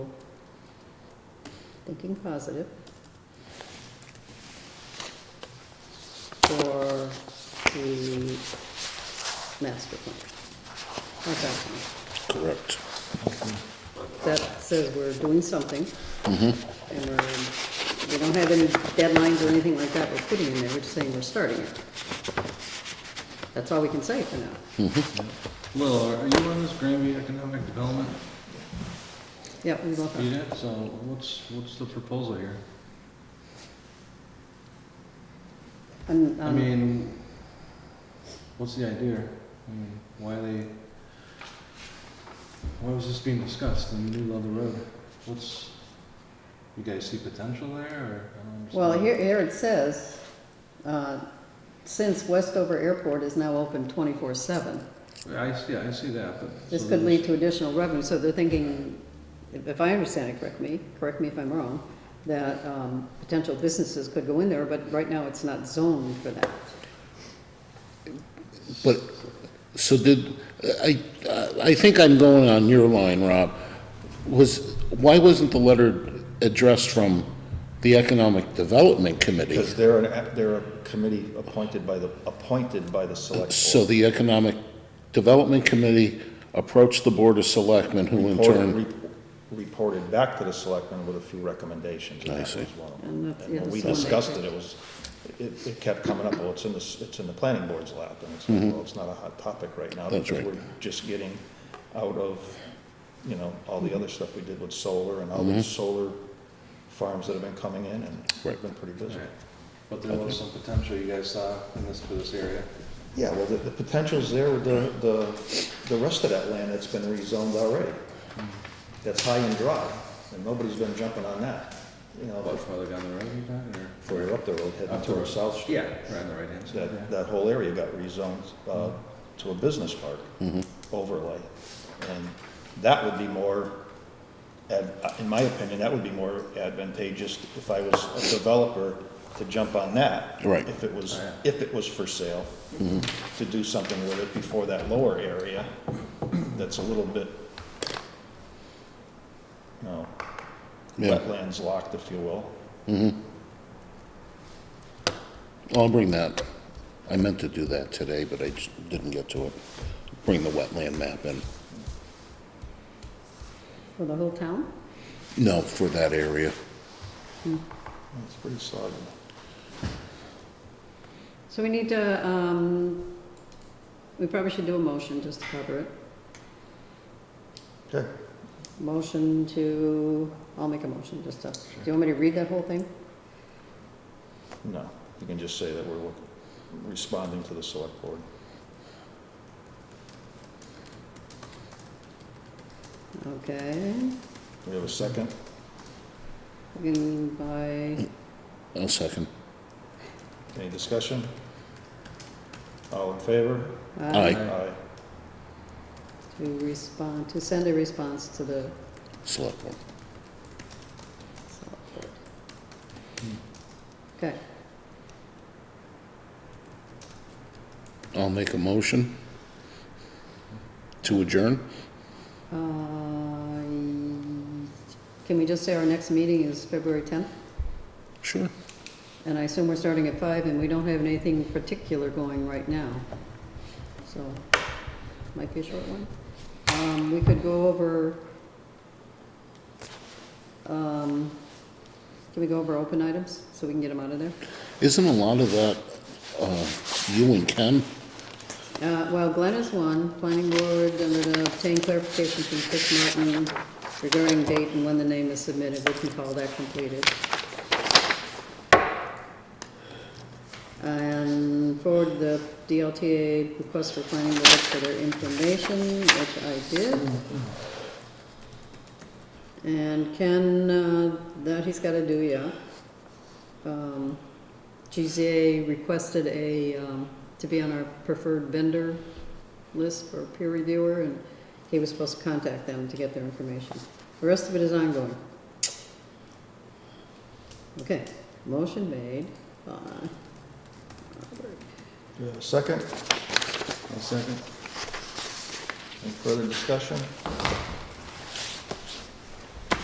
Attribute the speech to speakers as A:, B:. A: thinking positive. For the master plan. Not that one.
B: Correct.
A: That says we're doing something. And we're, we don't have any deadlines or anything like that we're putting in there, we're just saying we're starting it. That's all we can say for now.
C: Well, are you on this Granby Economic Development
A: Yep, we both are.
C: unit? So what's, what's the proposal here?
A: And,
C: I
A: um,
C: mean, what's the idea? I mean, why they, why was this being discussed in the middle of the road? What's, you guys see potential there or? I don't understand.
A: Well, here, here it says, uh, since Westover Airport is now open twenty-four seven,
C: I see, I see that, but.
A: this
C: so
A: could lead
C: there's-
A: to additional revenue, so they're thinking, if if I understand it, correct me, correct me if I'm wrong, that, um, potential businesses could go in there, but right now it's not zoned for that.
B: But, so did, I, I think I'm going on your line, Rob. Was, why wasn't the letter addressed from the Economic Development Committee?
D: Because they're an, they're a committee appointed by the, appointed by the select
B: So
D: board.
B: the Economic Development Committee approached the Board of Selectmen, who in turn,
D: Reported- rep- Reported back to the selectmen with a few recommendations. and
B: I
D: that
B: see.
D: was one of them.
A: And that's-
D: And
A: yeah,
D: when we
A: that's the one they
D: discussed it, it was, it, it kept coming up, well, it's in the, s- it's in the planning board's lap, and it's like, well, it's not a hot topic right now.
B: Mm-hmm. That's
D: because
B: right.
D: We're just getting out of, you know, all the other stuff we did with solar and all the solar farms that have been coming in, and
B: Mm-hmm. Right.
D: we've been pretty busy.
C: Alright. But there was some potential you guys saw in this, for this area.
D: Yeah, well, the, the potential's there with the, the, the rest of that land that's been rezoned already. That's high and dry, and nobody's been jumping on that, you
C: About
D: know,
C: farther down the road you got or?
D: further up the road heading toward South Street.
C: Yeah, right on the right hand side, yeah. Mm-hmm.
D: That, that whole area got rezoned, uh, to a business park
B: Mm-hmm.
D: overlay. And that would be more, ad- uh, in my opinion, that would be more advantageous if I was a developer to jump on that.
B: Right. Mm-hmm.
D: If it was,
C: Oh, yeah.
D: if it was for sale, to do something with it before that lower area that's a little bit, you know,
B: Yeah.
D: wetlands locked, if you will.
B: I'll bring that. I meant to do that today, but I just didn't get to it. Bring the wetland map in.
A: For the whole town?
B: No, for that area.
D: It's pretty soggy.
A: So we need to, um, we probably should do a motion just to cover it.
D: Okay.
A: Motion to, I'll make a motion just to, do you want me to read that whole thing?
D: No, you can just say that we're look- responding to the select board.
A: Okay,
D: We have a second?
A: beginning by
B: I'll second.
D: Any discussion? All in favor?
B: Aye.
D: Aye.
A: To respond, to send a response to the
B: Select Board.
A: select board. Okay,
B: I'll make a motion to adjourn.
A: uh, can we just say our next meeting is February 10th?
B: Sure.
A: And I assume we're starting at five, and we don't have anything particular going right now. So, might be a short one. Um, we could go over, um, can we go over open items, so we can get them out of there?
B: Isn't a lot of that uh, you and Ken?
A: Uh, well, Glenn is one, planning board, I'm gonna obtain clarification from Chris Martin regarding date and when the name is submitted, we can call that completed. And forward the DLTA request for planning board for their information, which I did. And Ken, uh, that he's gotta do, yeah. Um, GZA requested a, um, to be on our preferred vendor list for peer reviewer, and he was supposed to contact them to get their information. The rest of it is ongoing. Okay, motion made by Robert.
D: Do we have a second?
C: One second.
D: Any further discussion?